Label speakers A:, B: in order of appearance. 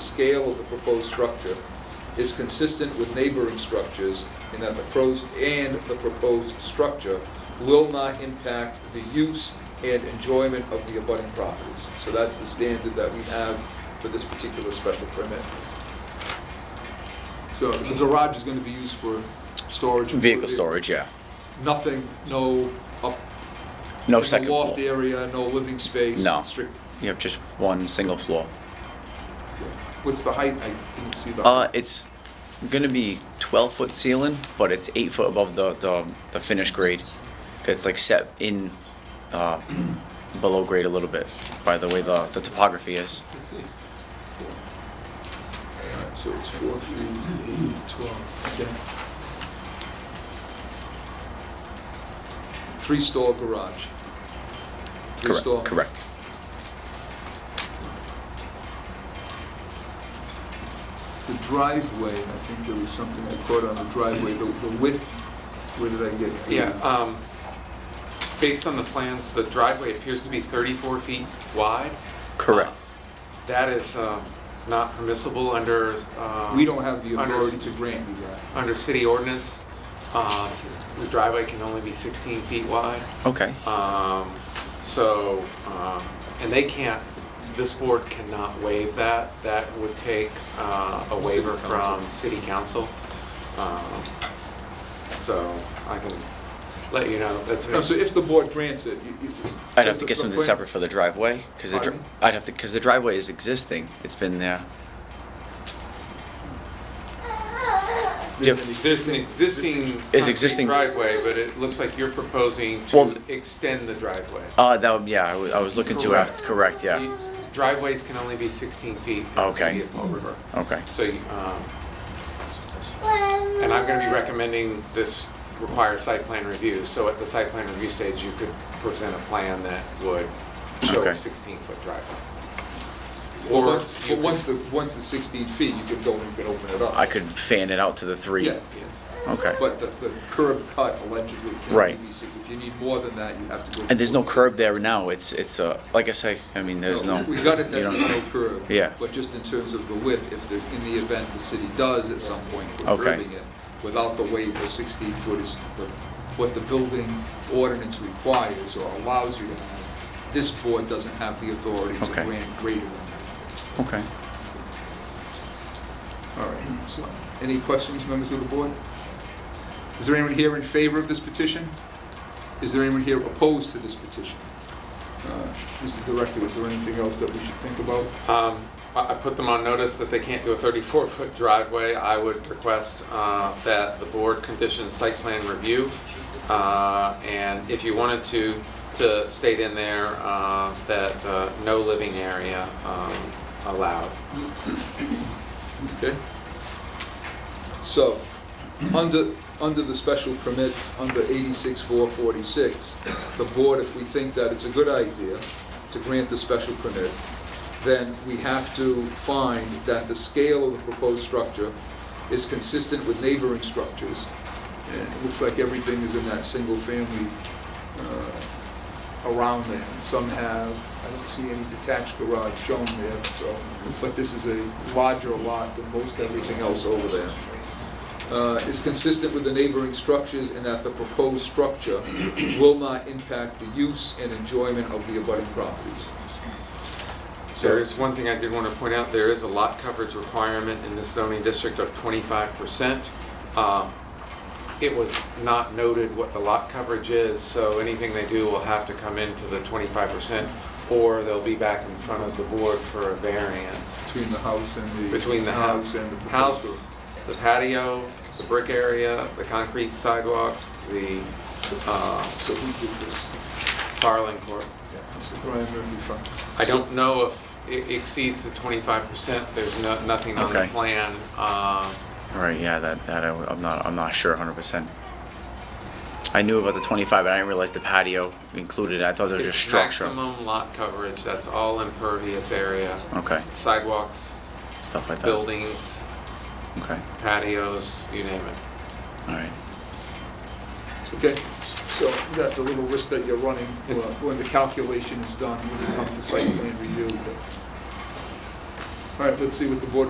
A: scale of the proposed structure is consistent with neighboring structures in that the pros, and the proposed structure will not impact the use and enjoyment of the abutting properties. So that's the standard that we have for this particular special permit. So the garage is gonna be used for storage.
B: Vehicle storage, yeah.
A: Nothing, no up.
B: No
A: in the
B: second
A: Loft
B: floor.
A: area, no living space.
B: No.
A: strict-
B: You have just one single floor.
A: What's the height? I didn't see the.
B: Uh, it's gonna be twelve foot ceiling, but it's eight foot above the, the, the finished grade. 'Cause It's like set in, uh, below grade a little bit by the way the, the topography is.
A: So it's four feet, eight, twelve, okay. Three-stall garage.
B: Correct.
A: Three-stall.
B: Correct.
A: The driveway, I think there was something I caught on the driveway, the the width, where did I get?
C: Yeah, um, based on the plans, the driveway appears to be 34 feet
A: Uh,
C: wide.
B: Correct.
C: That is um, not permissible under, um,
A: We don't have the
C: Under-
A: authority to grant you that.
C: under city ordinance. Uh, s- The driveway can only be 16 feet wide.
B: Okay.
C: Um, So, um, and they can't, this board cannot waive that. That would take uh, a waiver
A: City council.
C: from city council. Um, So I can let you know, that's. an
A: No, so
C: ex-
A: if the board grants it, you. you-
B: I'd have
A: the-
B: to get
A: the
B: something
A: plan-
B: separate for the driveway, cause the, dri-
A: Pardon?
B: I'd have to, cause the driveway is existing. It's been there.
C: There's
B: Yep.
C: an exist- There's an existing.
B: Is
C: concrete
B: existing-
C: Driveway, but it looks like you're proposing
B: Well-
C: to extend the driveway.
B: Uh, that would, yeah, I was, I was looking to,
C: Correct.
B: act- correct, yeah.
C: You- Driveways can only be 16 feet in the
B: Okay.
C: city of Fall River.
B: Okay.
C: So, you, um, and I'm gonna be recommending this requires site plan review. So at the site plan review stage, you could present a plan that would show a
B: Okay.
C: 16-foot driveway.
A: Well,
C: Or
A: once, but
C: you could-
A: once the, once the sixteen feet, you could go and you could open it up.
B: I could fan it out to the three.
A: Yeah,
C: Yes.
B: Okay.
A: but the, the curb cut allegedly can only
B: Right.
A: be six, if you need more than that, you have to go.
B: And there's no curb there now, it's, it's, uh, like I say, I mean, there's no.
A: We got it,
B: you
A: that
B: don't-
A: there's no curb.
B: Yeah.
A: But just in terms of the width, if the, in the event the city does at some point, we're
B: Okay.
A: curbing it without the waiver, sixteen foot is the, what the building ordinance requires or allows you to have. This board doesn't have the authority to
B: Okay.
A: grant greater than that.
B: Okay.
A: All right, so, any questions, members of the board? Is there anyone here in favor of this petition? Is there anyone here opposed to this petition? Uh, Mr. Director, is there anything else that we should think about?
C: Um, I I put them on notice that they can't do a 34-foot driveway. I would request uh, that the board condition site plan review. uh, And if you wanted to, to state in there uh, that uh, no living area um, allowed.
A: Okay. So, under, under the special permit, under 86446, the board, if we think that it's a good idea to grant the special permit, then we have to find that the scale of the proposed structure is consistent with neighboring structures. And it looks like everything is in that single-family uh, around there. Some have, I don't see any detached garage shown there, so, but this is a larger lot than most everything else over there. Uh, Is consistent with the neighboring structures in that the proposed structure will not impact the use and enjoyment of the abutting properties.
C: There is one thing I did want to point out, there is a lot coverage requirement in this zoning district of 25%. Um, It was not noted what the lot coverage is, so anything they do will have to come into the 25%, or they'll be back in front of the board for a variance.
A: Between the house and the.
C: Between the house,
A: and the proposed
C: house, the patio, the brick area, the concrete sidewalks, the uh,
A: garage. So who did this?
C: Farland Court.
A: Yeah, So Brian Murphy from.
C: I don't know if it exceeds the 25%, there's no- nothing on the
B: Okay.
C: plan. um,
B: All right, yeah, that, that, I- I'm not, I'm not sure hundred percent. I knew about the twenty-five, but I didn't realize the patio included, I thought it was just
C: It's
B: structure.
C: maximum lot coverage, that's all impervious area,
B: Okay,
C: sidewalks,
B: stuff like that,
C: buildings,
B: okay,
C: patios, you name it.
B: all right.
A: Okay, so that's a little risk that you're running when
C: It's-
A: when the calculation is done, when you come for site plan review. but- All right, let's see what the board